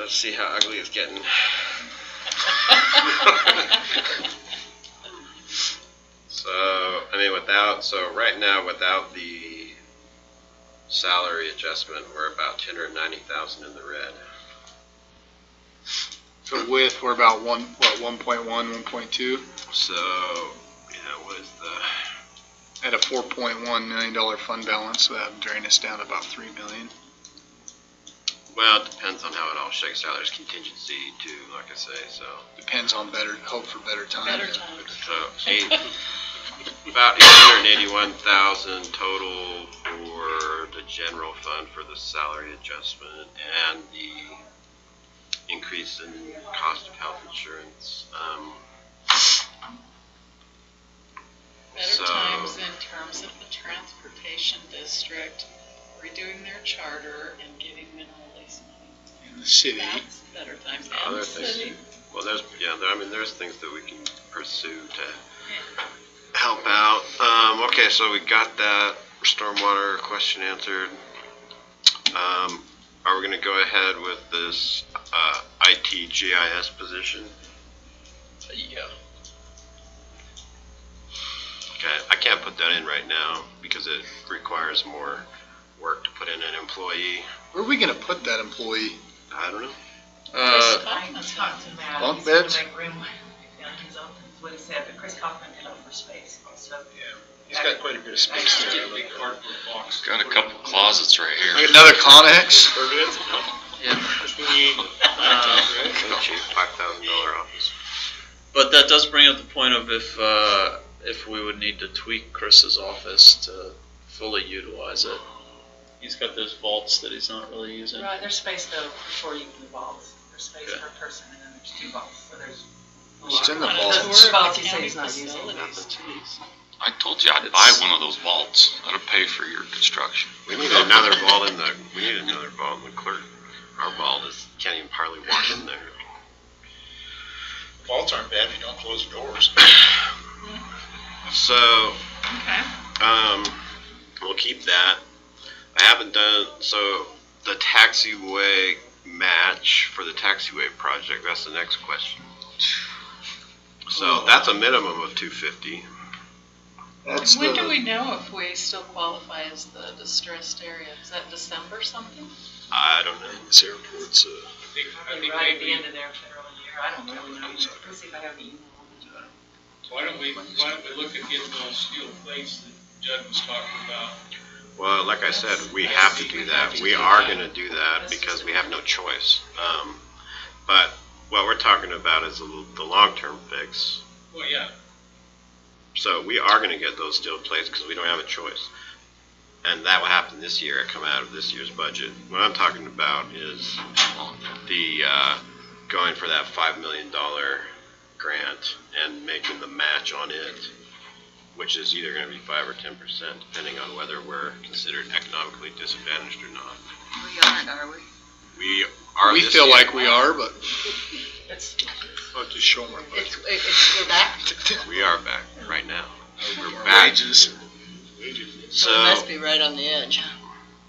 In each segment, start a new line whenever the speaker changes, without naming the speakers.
let's see how ugly it's getting. so, I mean, without, so right now, without the salary adjustment, we're about two hundred and ninety thousand in the red.
So with, we're about one, what, one point one, one point two,
So, yeah, what is the,
at a four point one million dollar fund balance, so that'd drain us down about three million.
well, it depends on how it all shakes out. There's contingency too, like I say, so.
Depends on better, hope for better
Better
times.
times.
So, eight, about eight hundred and eighty-one thousand total for the general fund for the salary adjustment and the increase in cost of health insurance. Um,
Better
So-
times in terms of the transportation district redoing their charter and giving them all these money.
In the city,
That's better times
Oh,
in
Other
the
things.
city.
Well, there's, yeah, there, I mean, there's things that we can pursue to help out. Um, okay, so we got that stormwater question answered. Um, are we gonna go ahead with this, uh, IT GIS position?
Yeah.
Okay, I can't put that in right now because it requires more work to put in an employee.
where are we gonna put that employee?
I don't know.
Uh,
Chris Kaufman's got
talked to Matt.
bunk
He's gonna
beds?
Make room when he opens, what he said, but Chris Kaufman can offer space also.
he's got quite a bit of space there.
Got a couple closets right here.
Another Connex?
Uh,
Cheap, five thousand dollar office.
But that does bring up the point of if, uh, if we would need to tweak Chris's office to fully utilize it. He's got those vaults that he's not really using.
Right, there's space though before you do vaults. There's space
Okay.
per person and then there's two vaults, so there's. a
It's
lot.
in the
one of
vaults.
those
Vaults
county
he said he's not using.
facilities. Jeez.
I told you I'd buy
It's-
one of those vaults. That'll pay for your construction.
We need another ball in the, we need another ball in the clerk. Our ball just can't even hardly walk in there.
Vaults aren't bad if you don't close the doors.
So,
Okay.
um, we'll keep that. I haven't done, so the taxiway match for the taxiway project, that's the next question. So that's a minimum of two fifty.
That's
When do
the,
we know if we still qualify as the distressed area? Is that December something?
I don't know.
this airport's, uh,
Probably right at the end of their federal year. I don't really know. Let's see if I have the email.
Why don't we, why don't we look at getting those steel plates that Judd was talking about?
Well, like I said, we have to do that. We are gonna do that because we have no choice. Um, but what we're talking about is the, the long-term fix.
Well, yeah,
So we are gonna get those steel plates because we don't have a choice. And that will happen this year, it come out of this year's budget. What I'm talking about is the, uh, going for that five million dollar grant and making the match on it, which is either gonna be five or ten percent, depending on whether we're considered economically disadvantaged or not.
We aren't, are we?
We are
we
this
feel
year.
like we are, but
It's,
I'll just show them our
it's, it's, we're back.
We are back right now. We're
budget.
back.
Wages.
So.
be right on the edge.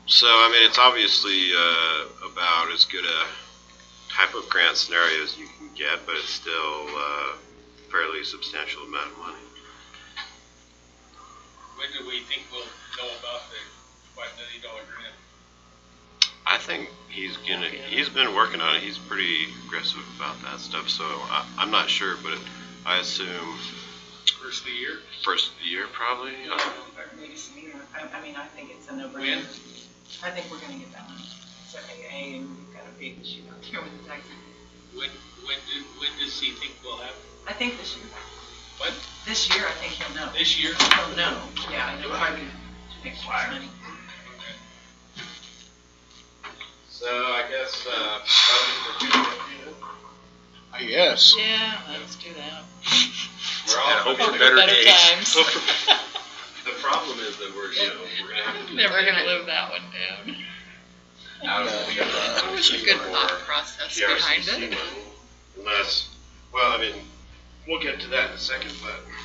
So, I mean, it's obviously uh, about as good a type of grant scenario as you can get, but it's still a fairly substantial amount of money.
when do we think we'll know about the five million dollar grant?
I think he's gonna, he's been working on it, he's pretty aggressive about that stuff, so I, I'm not sure, but I assume
First of the year?
first of the year probably. I don't know.
Maybe some year. I, I mean, I think it's a no-brainer.
When?
I think we're gonna get that one. It's A and we've got a big issue out there with the taxes.
When, when do, when does he think we'll have,
I think this year.
What?
This year, I think he'll know.
this year?
He'll know, yeah, I know, probably next year's money.
So I guess, uh, budget review.
I guess.
Yeah, let's do that.
we're all,
Hope for
better
better
days.
times.
The problem is that we're, you know, we're gonna have to.
Never gonna live that one down.
out of the, uh,
There was a good
or-
thought process behind
PRCC
it.
money, unless, well, I mean, we'll get to that in a second, but